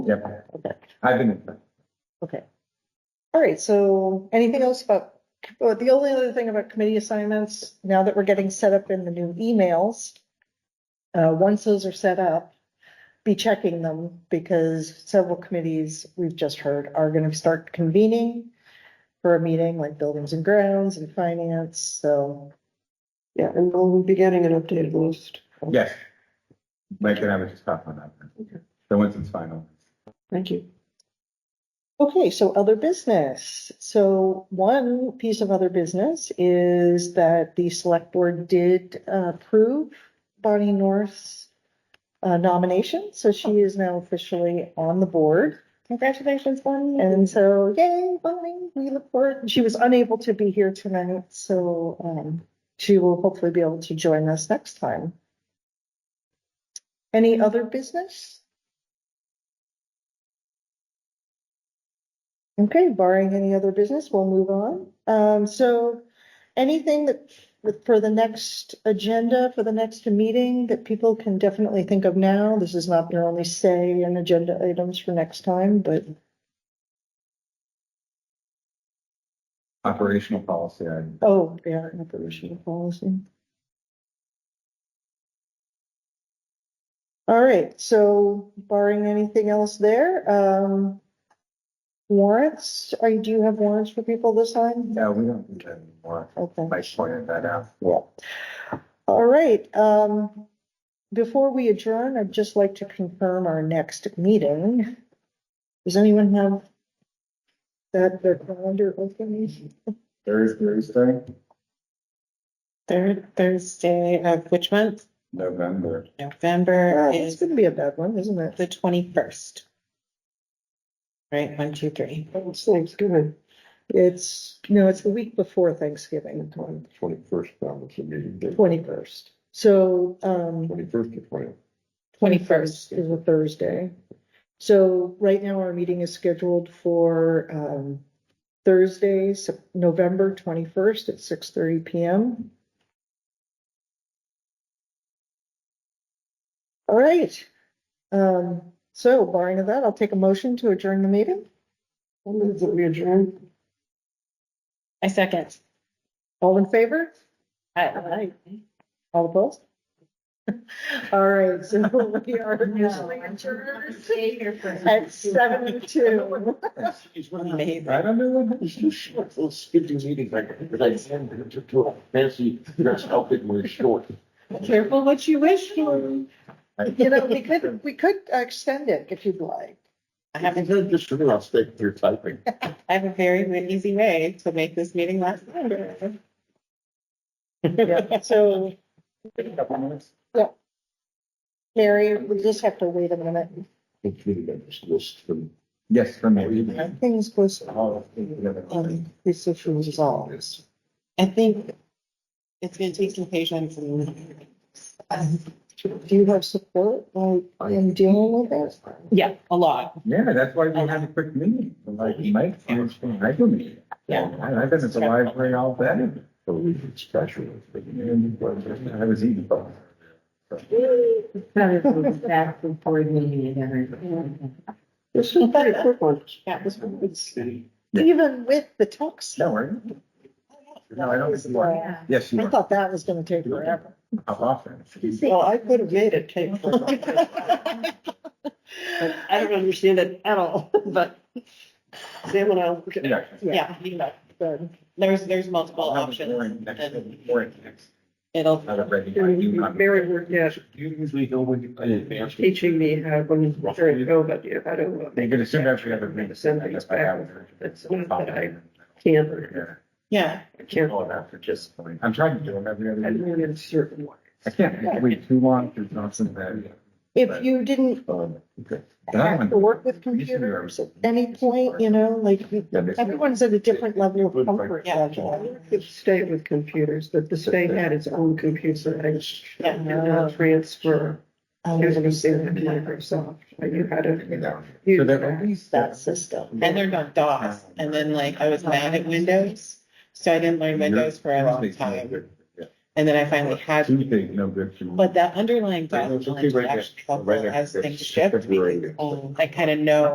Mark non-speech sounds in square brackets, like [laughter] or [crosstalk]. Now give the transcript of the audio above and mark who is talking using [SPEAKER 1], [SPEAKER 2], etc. [SPEAKER 1] Yep,
[SPEAKER 2] Okay,
[SPEAKER 1] I've been,
[SPEAKER 2] okay. All right, so anything else about, oh, the only other thing about committee assignments, now that we're getting set up in the new emails, uh, once those are set up, be checking them because several committees we've just heard are going to start convening for a meeting like buildings and grounds and finance, so.
[SPEAKER 3] Yeah, and we'll be getting an updated list.
[SPEAKER 1] yes. Mike and I were just talking about
[SPEAKER 3] Okay.
[SPEAKER 1] that. So once it's final.
[SPEAKER 3] Thank you.
[SPEAKER 2] Okay, so other business. So one piece of other business is that the select board did uh, approve Bonnie North's uh, nomination, so she is now officially on the board.
[SPEAKER 4] Oh. Congratulations, Bonnie.
[SPEAKER 2] And so, yay, Bonnie, we look forward, she was unable to be here tonight, so um, she will hopefully be able to join us next time. Any other business? Okay, barring any other business, we'll move on. Um, so anything that, with- for the next agenda, for the next meeting, that people can definitely think of now, this is not their only say in agenda items for next time, but
[SPEAKER 1] Operational policy, I,
[SPEAKER 2] Oh, yeah, operational policy. All right, so barring anything else there, um. Warrants, are, do you have warrants for people this time?
[SPEAKER 1] no, we don't think that anymore.
[SPEAKER 2] Okay.
[SPEAKER 1] Mike pointed that out.
[SPEAKER 2] Yeah. All right, um, before we adjourn, I'd just like to confirm our next meeting. Does anyone have that, their calendar open?
[SPEAKER 1] Thursday, Thursday,
[SPEAKER 4] Third Thursday of which month?
[SPEAKER 1] November.
[SPEAKER 4] November
[SPEAKER 2] Uh, It's
[SPEAKER 4] is
[SPEAKER 2] gonna be a bad one, isn't it?
[SPEAKER 4] the twenty-first. Right, one, two, three.
[SPEAKER 3] Oh, It's Thanksgiving.
[SPEAKER 2] It's, no, it's the week before Thanksgiving,
[SPEAKER 5] Twenty-first, that was the meeting day,
[SPEAKER 2] twenty-first. So, um,
[SPEAKER 5] twenty-first to twentieth.
[SPEAKER 2] twenty-first is a Thursday. So right now our meeting is scheduled for, um, Thursday, Sep- November twenty-first at six thirty PM. All right, um, so barring of that, I'll take a motion to adjourn the meeting.
[SPEAKER 3] I'll move that we adjourn.
[SPEAKER 4] I second.
[SPEAKER 2] All in favor?
[SPEAKER 4] Aye.
[SPEAKER 2] All opposed? [laughs] All right, so we are officially adjourned
[SPEAKER 4] At
[SPEAKER 2] at seven two.
[SPEAKER 5] I don't know what. Those stupid meetings, like, I send to, to a fancy dress outfit with shorts.
[SPEAKER 4] Careful what you wish for.
[SPEAKER 2] You
[SPEAKER 1] [laughs]
[SPEAKER 2] know, we could, we could extend it if you'd like.
[SPEAKER 4] I have,
[SPEAKER 5] haven't
[SPEAKER 4] a-
[SPEAKER 5] heard this from last day through [laughs] typing.
[SPEAKER 4] I have a very easy way to make this meeting last longer.
[SPEAKER 2] Yeah, So, Mary, we just have to wait a minute.
[SPEAKER 5] It's really been this list from.
[SPEAKER 1] Yes, for
[SPEAKER 5] Oh,
[SPEAKER 1] me. Oh,
[SPEAKER 2] Things was,
[SPEAKER 1] All together.
[SPEAKER 2] um, this issue was resolved.
[SPEAKER 4] I think it's gonna take some patience and.
[SPEAKER 2] Do you have support, like, in dealing with
[SPEAKER 1] [laughs]
[SPEAKER 2] this?
[SPEAKER 4] Yeah, a lot.
[SPEAKER 1] Yeah, that's why we have a quick meeting, like Mike, I do meet.
[SPEAKER 4] Yeah.
[SPEAKER 1] I've been at the library all day.
[SPEAKER 5] For reasons special.
[SPEAKER 1] I was eating.
[SPEAKER 3] This is a pretty quick one.
[SPEAKER 4] Yeah, this one was-
[SPEAKER 2] Even with the talks.
[SPEAKER 1] No, I didn't. No, I don't miss the morning. Yes, you
[SPEAKER 2] I
[SPEAKER 1] were.
[SPEAKER 2] thought that was gonna take forever.
[SPEAKER 1] How often?
[SPEAKER 3] Well, I could have made it
[SPEAKER 1] [laughs]
[SPEAKER 3] take. forever. I don't understand it
[SPEAKER 4] [laughs]
[SPEAKER 3] at all, but Sam and I will look at it.
[SPEAKER 1] Yeah.
[SPEAKER 4] Yeah, you know, there's, there's multiple
[SPEAKER 1] I'll have a
[SPEAKER 4] options.
[SPEAKER 1] boring next-
[SPEAKER 4] and
[SPEAKER 1] boring next-
[SPEAKER 4] It'll,
[SPEAKER 1] not a ready-
[SPEAKER 3] Mary worked at
[SPEAKER 5] You usually know when you play advanced.
[SPEAKER 3] teaching me how, when, during COVID, you know, how to
[SPEAKER 1] They
[SPEAKER 3] make
[SPEAKER 1] could assume after you have a meeting.
[SPEAKER 3] Send things back. That's not that I can or
[SPEAKER 1] Yeah.
[SPEAKER 4] yeah,
[SPEAKER 3] can't.
[SPEAKER 1] All that for just, I'm trying to do them every
[SPEAKER 3] I
[SPEAKER 1] other week.
[SPEAKER 3] learn in certain ways.
[SPEAKER 1] I can't wait too long for Johnson to.
[SPEAKER 2] If you didn't
[SPEAKER 1] um, okay. That
[SPEAKER 2] have to
[SPEAKER 1] one-
[SPEAKER 2] work with computers at any point, you know, like, you-
[SPEAKER 1] Yeah, this-
[SPEAKER 2] everyone's at a different level of comfort.
[SPEAKER 4] Yeah.
[SPEAKER 2] level.
[SPEAKER 3] Could stay with computers, but the state had its own computer. I did not transfer.
[SPEAKER 2] Um,
[SPEAKER 3] everything to Microsoft. I knew how
[SPEAKER 1] you
[SPEAKER 3] to
[SPEAKER 1] know. So
[SPEAKER 3] use
[SPEAKER 1] that at
[SPEAKER 3] that.
[SPEAKER 1] least
[SPEAKER 2] That
[SPEAKER 1] that's.
[SPEAKER 2] system.
[SPEAKER 4] and they're not DOS, and then like I was mad at Windows, so I didn't learn Windows for a long time. And then I finally had,
[SPEAKER 1] Two things, no good. for me.
[SPEAKER 4] but that underlying
[SPEAKER 1] Yeah, it's okay
[SPEAKER 4] document
[SPEAKER 1] right there.
[SPEAKER 4] actually helpful
[SPEAKER 1] Right there.
[SPEAKER 4] as things
[SPEAKER 1] It's
[SPEAKER 4] shift,
[SPEAKER 1] right there.
[SPEAKER 4] because um, I kind of know